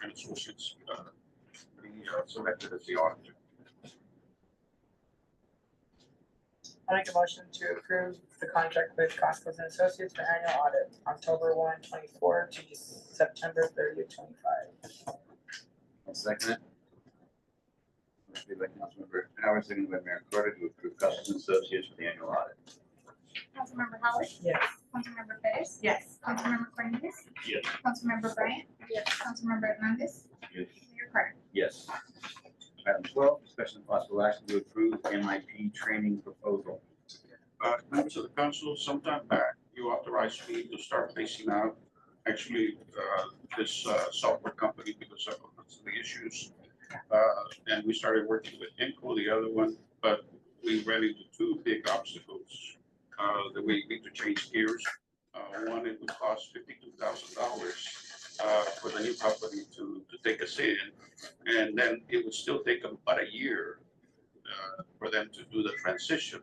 council should uh, be uh, selected as the auditor. I make a motion to approve the contract with Costas and Associates for annual audit, October 1, 24 to September 30, twenty-five. I'll second it. Motion made by Councilmember Howard, seconded by Mayor Carter to approve Custom Associates for the annual audit. Councilmember Holly, Yes. Councilmember Fittis, Yes. Councilmember Brennan, Yes. Councilmember Bryant. Yes. Councilmember Hernandez. Yes. Mayor Carter. Yes. Item twelve, discussion of possible action to approve MIP training proposal. Uh, members of the council, sometime back, you authorized me to start facing out, actually, uh, this, uh, software company because of the issues. Uh, and we started working with Inco, the other one, but we ran into two big obstacles, uh, that we need to change gears. Uh, one, it would cost fifty-two thousand dollars, uh, for the new company to, to take us in. And then it would still take them about a year, uh, for them to do the transition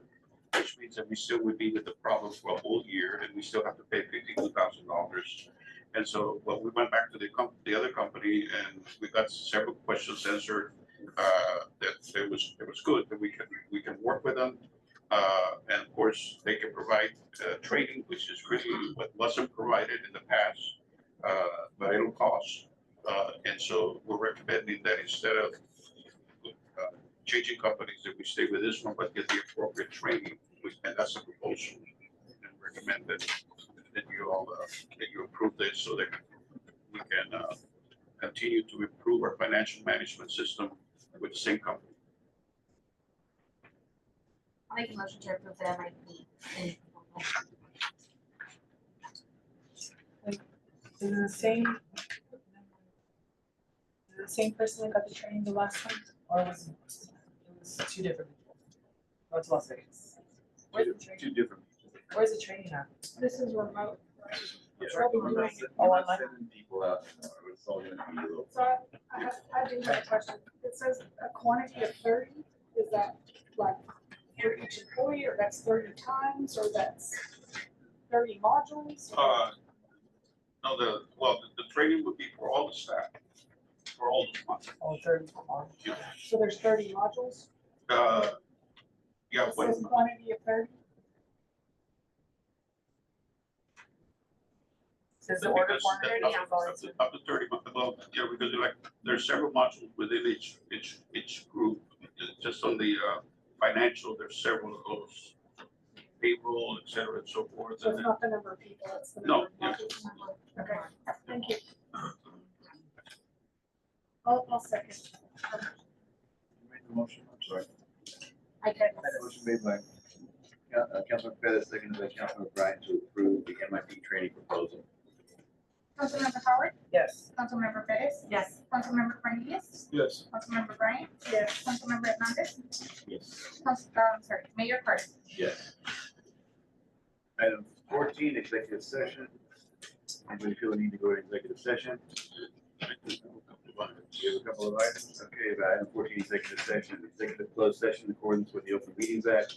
which means that we still would be with the problem for a whole year and we still have to pay fifty-two thousand dollars. And so, well, we went back to the com the other company and we got several questions answered. Uh, that it was, it was good, that we can, we can work with them. Uh, and of course, they can provide, uh, training, which is really what wasn't provided in the past. Uh, but it'll cost, uh, and so we're recommending that instead of uh, changing companies, that we stay with this one, but get the appropriate training, which- and that's a proposal. And recommend that, that you all, uh, that you approve this so that we can, uh, continue to improve our financial management system with the same company. I'll make a motion to approve the MIP. training proposal. Is it the same? is it The same person that got the training the last time, or was it, it was two different people? Oh, it's Las Vegas. Where's the training, Two different. where's the training at? This is remote. Yeah. Probably We're not doing it sending- all we're not online. sending people out, tomorrow. it's all gonna be a little. So I, I have, I do have a question. It says a quantity of thirty, is that like for each employee, or that's thirty times, or that's thirty modules? Uh, no, the, well, the, the training would be for all the staff, for all the months. Oh, third, oh, So there's thirty modules? Uh, yeah, It but says quantity of thirty? Says the But order because form the- already up- Up to- up to thirty, but about, yeah, because you're like, there's several modules within each, each, each group. Ju- Just on the, uh, financial, there's several of those, payroll, et cetera, and so forth, So and then. it's not the number of people, it's the No, number of modules. Okay, thank you. I'll, I'll second. You made the motion, I'm sorry. I did. Motion made by Coun- uh, Councilman Pettis, seconded by Councilman Bryant to approve the MIP training proposal. Councilmember Howard, Yes. Councilmember Fittis, yes. Councilmember Brennies, Yes. Councilmember Bryant. Yes. Councilmember Hernandez, Yes. Council, um, sorry, Mayor Carter. Yes. Item fourteen, executive session. Anybody feel the need to go to executive session? We have a couple of items. Okay, about item fourteen, executive session, executive closed session in accordance with the Open Meetings Act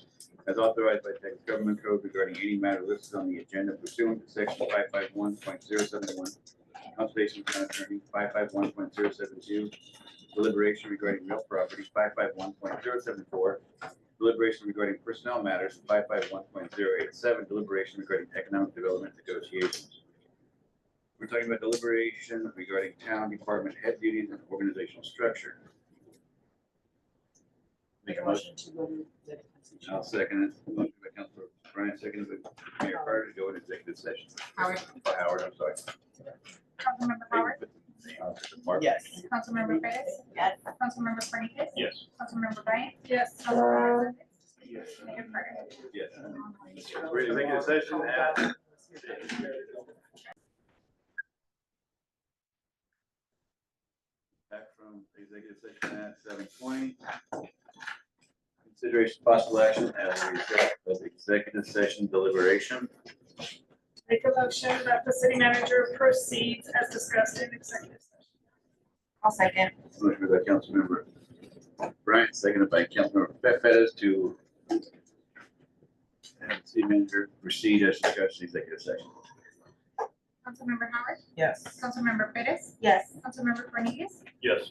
as authorized by Texas Government Code regarding any matter listed on the agenda pursuant to section five five one point zero seven one, conservation plan attorney, five five one point zero seven two, deliberation regarding real property, five five one point zero seven four, deliberation regarding personnel matters, five five one point zero eight seven, deliberation regarding economic development negotiations. We're talking about deliberation regarding town department head duties and organizational structure. Make a motion. Oh, to go to the. I'll second it. Motion by Councilor Bryant, seconded by Mayor Carter to go into executive session. Howard. Howard, I'm sorry. Councilmember Howard, Mark. Yes. Councilmember Fittis, Yes. Councilmember Brennies, Yes. Councilmember Bryant. Yes. Councilmember Hernandez, Yes. Mayor Carter. Yes. We're in executive session at Back from executive session at seven twenty. Consideration possible action as a result of executive session deliberation. Make a motion that the city manager proceeds as discussed in executive session. I'll second. Motion by Councilmember Bryant, seconded by Councilmember Fe- Fettis to have the city manager proceed as discussed in executive session. Councilmember Howard, Yes. Councilmember Freitas, Yes. Councilmember Cornelius, Yes.